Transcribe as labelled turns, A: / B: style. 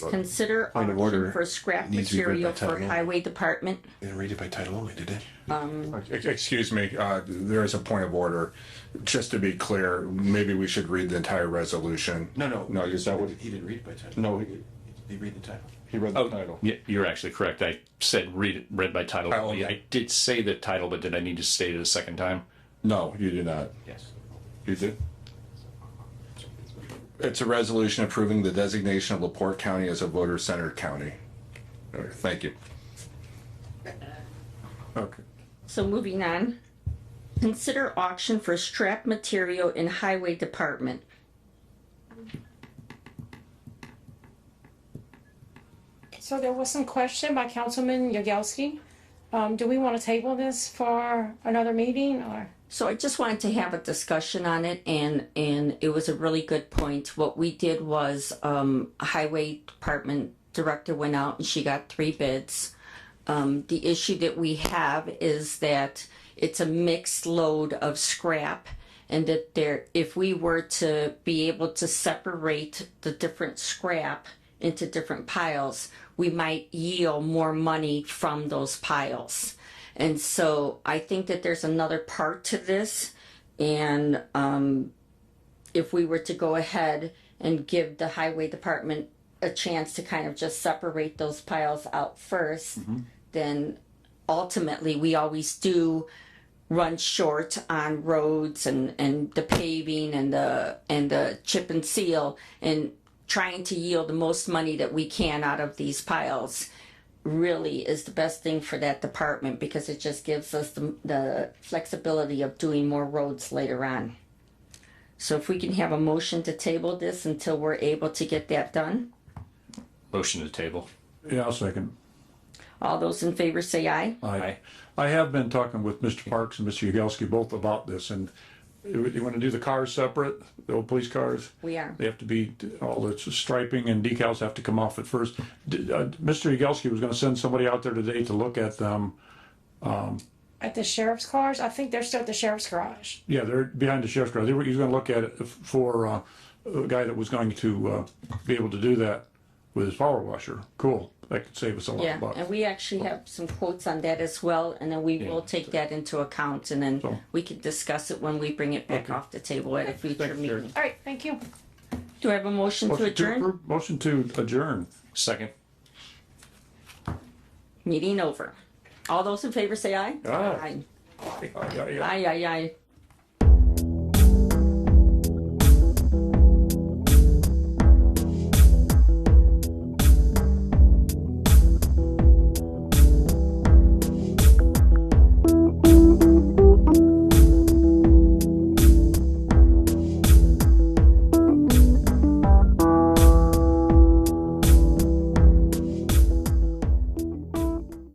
A: Consider
B: Point of
A: auction
B: order.
A: for scrap
B: Needs to be read by
A: material for
B: title.
A: highway department.
B: Didn't read it by title only, did it?
C: Ex- Excuse me, uh, there is a point of order. Just to be clear, maybe we should read the entire resolution.
B: No, no.
C: No, is that what,
B: He didn't read it by title.
C: No,
B: He
C: he-
B: he read the title.
C: he read
B: Oh.
C: the title?
D: Yeah, you're actually correct. I said read it read by title.
C: Title.
D: only. I did say the title, but did I need to state it a second time?
C: No, you do not.
B: Yes.
C: You do? It's a resolution approving the designation of Laporte County as a voter-centered county. All right, Thank you. Okay.
A: So moving on. Consider auction for scrap material in highway department.
E: So there was some question by Councilman Yagowski. Um, do we want to table this for another meeting or?
A: So I just wanted to have a discussion on it and, and it was a really good point. What we did was, um, highway department director went out and she got three bids. Um, the issue that we have is that it's a mixed load of scrap and that there, if we were to be able to separate the different scrap into different piles, we might yield more money from those piles. And so I think that there's another part to this. And um, if we were to go ahead and give the highway department a chance to kind of just separate those piles out 1st then ultimately we always do run short on roads and, and the paving and the and the chip and seal and trying to yield the most money that we can out of these piles really is the best thing for that department because it just gives us the, the flexibility of doing more roads later on. So if we can have a motion to table this until we're able to get that done,
D: Motion to table.
F: Yeah, I'll second.
A: all those in favor say aye.
F: I, I have been talking with Mr. Parks and Mr. Yagowski both about this and you you wanna do the cars separate, the old police cars?
A: We are.
F: They have to be, all the striping and decals have to come off at first. D- uh, Mr. Yagowski was gonna send somebody out there today to look at um, them.
E: At the sheriff's cars? I think they're still at the sheriff's garage.
F: Yeah, they're behind the sheriff's garage. They were, he was gonna look at it for, uh, a guy that was going to, uh, be able to do that with his power washer. Cool. That could save us a lot
A: Yeah,
F: of bucks.
A: and we actually have some quotes on that as well, and then we will take that into account and then we can discuss it when we bring it back off the table at a future meeting.
E: All right, thank you.
A: Do I have a motion to
F: Motion
A: adjourn?
F: approve- Motion to adjourn.
D: Second.
A: Meeting over. All those in favor say aye.
F: Aye.
A: Aye, aye, aye.